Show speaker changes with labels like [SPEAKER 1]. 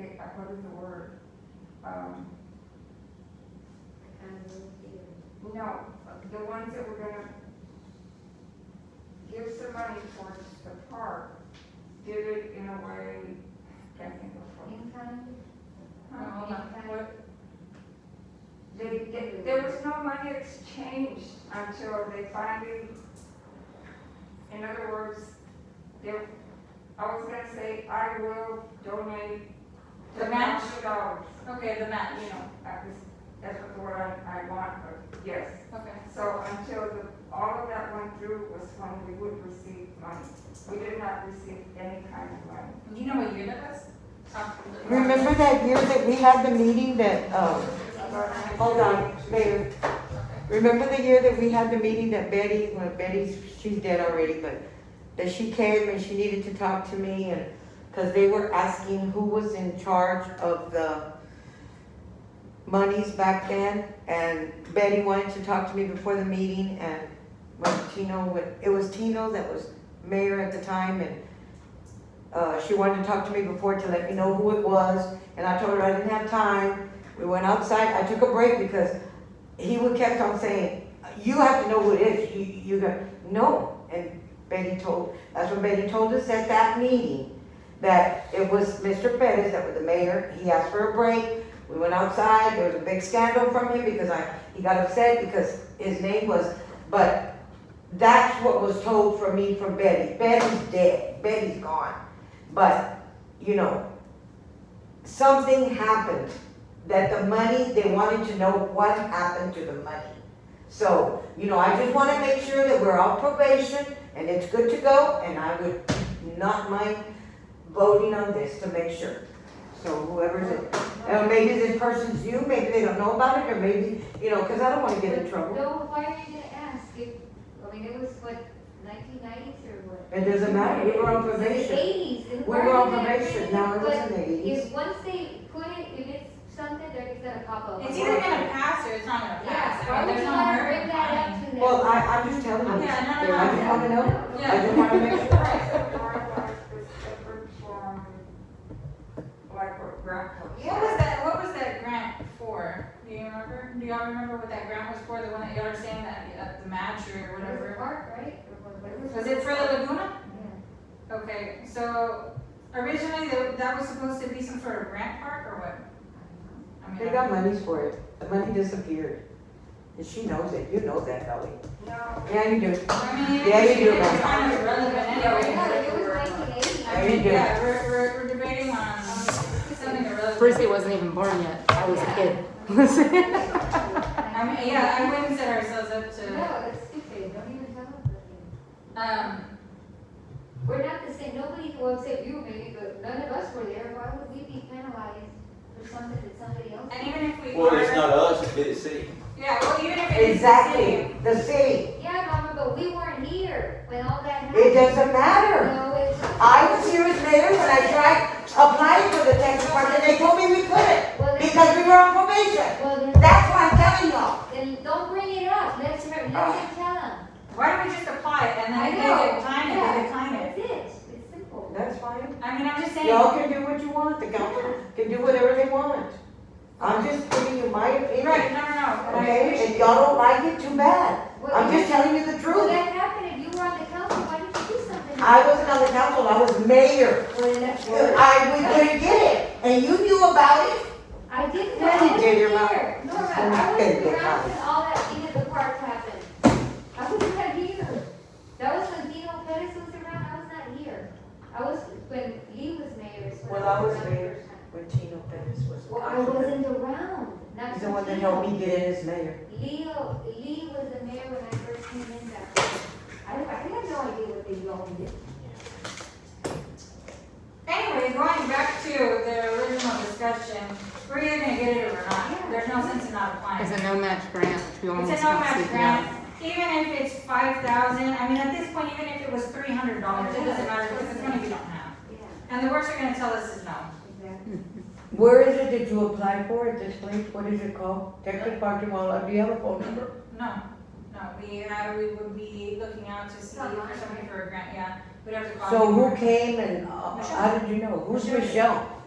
[SPEAKER 1] I- what is the word? Um, no, the ones that we're gonna give some money towards the park, did it in a way, can't think of what. Huh? They, they, there was no money exchanged until they finally, in other words, there, I was gonna say, I will donate
[SPEAKER 2] The match?
[SPEAKER 1] $1,000,
[SPEAKER 2] Okay, the match,
[SPEAKER 1] You know, that was, that's what the word I, I want, but yes.
[SPEAKER 2] okay.
[SPEAKER 1] So until the, all of that went through was when we would receive money. We did not receive any kind of money.
[SPEAKER 2] You know what year that was? Probably.
[SPEAKER 3] Remember that year that we had the meeting that, um,
[SPEAKER 1] But-
[SPEAKER 3] hold on, Mayor. Remember the year that we had the meeting that Betty, well, Betty's, she's dead already, but that she came and she needed to talk to me and, cause they were asking who was in charge of the monies back then, and Betty wanted to talk to me before the meeting, and when Tino, went- it was Tino that was mayor at the time, and uh, she wanted to talk to me before to let me know who it was, and I told her I didn't have time. We went outside, I took a break because he would kept on saying, you have to know who it is, you, you got, no. And Betty told, that's when Betty told us at that meeting, that it was Mr. Pettis that was the mayor, he asked for a break. We went outside, there was a big scandal from him because I, he got upset because his name was, but that's what was told from me from Betty. Betty's dead, Betty's gone. But, you know, something happened that the money, they wanted to know what happened to the money. So, you know, I just wanna make sure that we're on probation and it's good to go, and I would not mind voting on this to make sure. So whoever's it, and maybe this person's you, maybe they don't know about it, or maybe, you know, cause I don't wanna get in trouble.
[SPEAKER 4] No, why are you gonna ask? It, I mean, it was what, nineteen nineties or what?
[SPEAKER 3] It doesn't matter, we were on probation.
[SPEAKER 4] Eighties, and
[SPEAKER 3] We
[SPEAKER 4] why
[SPEAKER 3] were
[SPEAKER 4] are
[SPEAKER 3] on
[SPEAKER 4] you gonna bring
[SPEAKER 3] probation,
[SPEAKER 4] it
[SPEAKER 3] now
[SPEAKER 4] up?
[SPEAKER 3] it
[SPEAKER 4] But
[SPEAKER 3] was in the eighties.
[SPEAKER 4] if, once they put it, if it's something, they're just gonna pop up.
[SPEAKER 2] It's either gonna pass or it's not gonna pass.
[SPEAKER 4] Yeah, why
[SPEAKER 2] I mean,
[SPEAKER 4] would
[SPEAKER 2] there's
[SPEAKER 4] you
[SPEAKER 2] no
[SPEAKER 4] wanna
[SPEAKER 2] hurry.
[SPEAKER 4] bring that up to them?
[SPEAKER 3] Well, I, I'm just telling you, I
[SPEAKER 2] Yeah, no, no,
[SPEAKER 3] just wanna know, I
[SPEAKER 2] Yeah.
[SPEAKER 3] just wanna make sure.
[SPEAKER 2] Right.
[SPEAKER 1] Our life is different from, like what grandpa. said.
[SPEAKER 2] What was that, what was that grant for? Do you remember? Do y'all remember what that grant was for? The one that y'all are saying that, uh, the match or
[SPEAKER 4] It was a
[SPEAKER 2] whatever?
[SPEAKER 4] park, right? Or what- what
[SPEAKER 2] Was it for the Laguna?
[SPEAKER 4] Yeah.
[SPEAKER 2] Okay, so originally tha- that was supposed to be some sort of grant park or what? I mean,
[SPEAKER 3] They got monies for it. The money disappeared. And she knows it. You know that, Ellie.
[SPEAKER 1] No,
[SPEAKER 3] Yeah, you do.
[SPEAKER 2] I mean,
[SPEAKER 3] Yeah, you do,
[SPEAKER 2] it's
[SPEAKER 3] right.
[SPEAKER 2] kind of irrelevant anyway.
[SPEAKER 4] Yeah, it was nineteen eighties.
[SPEAKER 2] I
[SPEAKER 3] Yeah, you
[SPEAKER 2] mean,
[SPEAKER 3] do.
[SPEAKER 2] yeah, we're, we're, we're debating on something irrelevant.
[SPEAKER 5] Frisbee wasn't even born yet. I was a kid.
[SPEAKER 2] I mean, yeah, I wouldn't set ourselves up to,
[SPEAKER 4] No, it's stupid, don't even tell them.
[SPEAKER 2] um,
[SPEAKER 4] We're not the same, nobody, well, except you maybe, but none of us were there, why would we be penalized for something that somebody else?
[SPEAKER 2] and even if we.
[SPEAKER 6] Well,
[SPEAKER 2] are-
[SPEAKER 6] it's not us, it's the city.
[SPEAKER 2] Yeah, well, even if it's
[SPEAKER 3] Exactly. The city.
[SPEAKER 4] Yeah, Mama, but we weren't here when all that happened.
[SPEAKER 3] It doesn't matter.
[SPEAKER 4] No, it's.
[SPEAKER 3] I was here as mayor when I tried applying for the tax department. They told me we couldn't
[SPEAKER 4] Well, then-
[SPEAKER 3] because we were on probation.
[SPEAKER 4] Well, then,
[SPEAKER 3] That's why I'm telling y'all.
[SPEAKER 4] then don't bring it up, let's, let
[SPEAKER 3] Ah.
[SPEAKER 4] them tell them.
[SPEAKER 2] Why don't we just apply it and
[SPEAKER 4] I
[SPEAKER 2] then if
[SPEAKER 4] know.
[SPEAKER 2] they decline it, they decline it.
[SPEAKER 4] That's it, it's simple.
[SPEAKER 3] That's fine.
[SPEAKER 2] I mean, I'm just saying.
[SPEAKER 3] Y'all can do what you want. The council can do whatever they want. I'm just giving you my
[SPEAKER 2] Right,
[SPEAKER 3] opinion.
[SPEAKER 2] no, no, no.
[SPEAKER 3] Okay? If y'all don't like it, too bad.
[SPEAKER 4] Well,
[SPEAKER 3] I'm just telling you the
[SPEAKER 4] Well,
[SPEAKER 3] truth.
[SPEAKER 4] that happened, if you were on the council, why didn't you do something?
[SPEAKER 3] I wasn't on the council. I was mayor.
[SPEAKER 4] Well, then that's.
[SPEAKER 3] I, we couldn't get it, and you knew about it?
[SPEAKER 4] I didn't,
[SPEAKER 3] Well,
[SPEAKER 4] I
[SPEAKER 3] you
[SPEAKER 4] wasn't
[SPEAKER 3] did your mouth.
[SPEAKER 4] here. Nora, I wasn't around when all that thing at the park happened. I wasn't here. That was when Dino Pettis was around, I was not here. I was, when Lee was mayor. is when
[SPEAKER 3] Well, I was
[SPEAKER 4] around.
[SPEAKER 3] mayor. When Tino Pettis was.
[SPEAKER 4] Well, I wasn't around, not.
[SPEAKER 3] He's the one that
[SPEAKER 4] Tino.
[SPEAKER 3] helped me get in as mayor.
[SPEAKER 4] Leo, Lee was the mayor when I first came in back then. I, I have no idea what they all did.
[SPEAKER 2] Anyway, going back to the original discussion, we're either gonna get it or we're not. There's no sense in not
[SPEAKER 5] It's
[SPEAKER 2] applying.
[SPEAKER 5] a no match grant, which we
[SPEAKER 2] It's a no
[SPEAKER 5] almost got
[SPEAKER 2] match
[SPEAKER 5] taken out.
[SPEAKER 2] grant, even if it's five thousand, I mean, at this point, even if it was three hundred dollars, it doesn't matter because it's money we don't have.
[SPEAKER 4] Yeah,
[SPEAKER 2] And the worst they're gonna tell us is no.
[SPEAKER 4] exactly.
[SPEAKER 3] Where is it that you applied for at this place? What is it called? Texas Park, you want, do you have a phone number?
[SPEAKER 2] No, no, we, uh, we would be looking out to see for somebody for a grant, yeah. We'd have to call.
[SPEAKER 3] So
[SPEAKER 2] people.
[SPEAKER 3] who came and, uh, how did you know? Who's Michelle?